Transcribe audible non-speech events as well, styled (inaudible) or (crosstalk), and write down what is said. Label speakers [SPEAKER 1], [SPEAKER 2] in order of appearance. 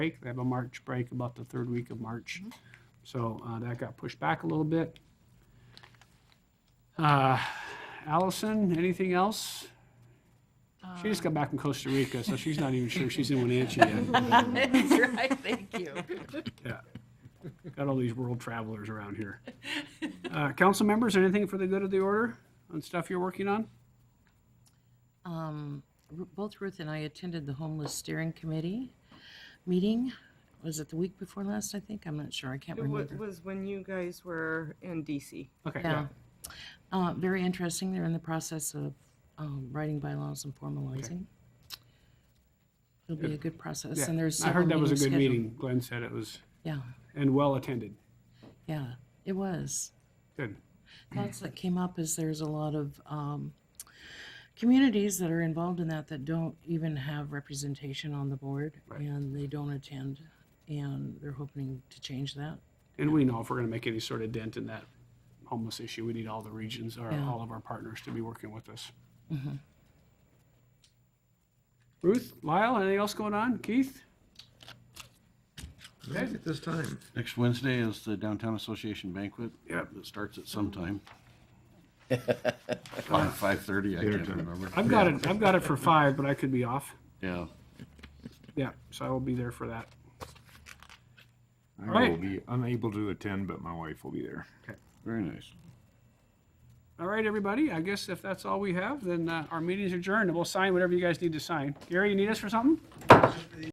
[SPEAKER 1] break. They have a March break about the third week of March. So uh, that got pushed back a little bit. Uh, Allison, anything else? She just got back from Costa Rica, so she's not even sure she's in Wenatchee yet.
[SPEAKER 2] That's right, thank you.
[SPEAKER 1] Got all these world travelers around here. Uh, Council members, anything for the good of the order on stuff you're working on?
[SPEAKER 2] (laughs) Um, Ru- Both Ruth and I attended the homeless steering committee meeting. Was it the week before last, I think? I'm not sure, I can't
[SPEAKER 3] It wa-
[SPEAKER 2] remember.
[SPEAKER 3] was when you guys were in DC.
[SPEAKER 1] Okay, yeah.
[SPEAKER 2] Yeah. Uh, Very interesting, they're in the process of um, writing bylaws and formalizing. It'll be a good process, and there's
[SPEAKER 1] I
[SPEAKER 2] several
[SPEAKER 1] heard that was a
[SPEAKER 2] meetings
[SPEAKER 1] good
[SPEAKER 2] scheduled.
[SPEAKER 1] meeting. Glenn said it was,
[SPEAKER 2] Yeah,
[SPEAKER 1] and well-attended.
[SPEAKER 2] yeah, it was.
[SPEAKER 1] Good.
[SPEAKER 2] thoughts that came up is there's a lot of um, communities that are involved in that that don't even have representation on the board
[SPEAKER 1] Right.
[SPEAKER 2] and they don't attend and they're hoping to change that.
[SPEAKER 1] And we know if we're going to make any sort of dent in that homeless issue, we need all the regions, or
[SPEAKER 2] Yeah.
[SPEAKER 1] all of our partners to be working with us. Ruth, Lyle, anything else going on? Keith?
[SPEAKER 4] Right at this time. Next Wednesday is the Downtown Association banquet.
[SPEAKER 1] Yep.
[SPEAKER 4] It starts at some time. Five, five-thirty, I can't remember.
[SPEAKER 1] I've got it, I've got it for five, but I could be off.
[SPEAKER 4] Yeah.
[SPEAKER 1] Yeah, so I will be there for that.
[SPEAKER 5] I will
[SPEAKER 1] Alright.
[SPEAKER 5] be unable to attend, but my wife will be there.
[SPEAKER 4] Very nice.
[SPEAKER 1] All right, everybody, I guess if that's all we have, then uh, our meeting's adjourned, and we'll sign whatever you guys need to sign. Gary, you need us for something?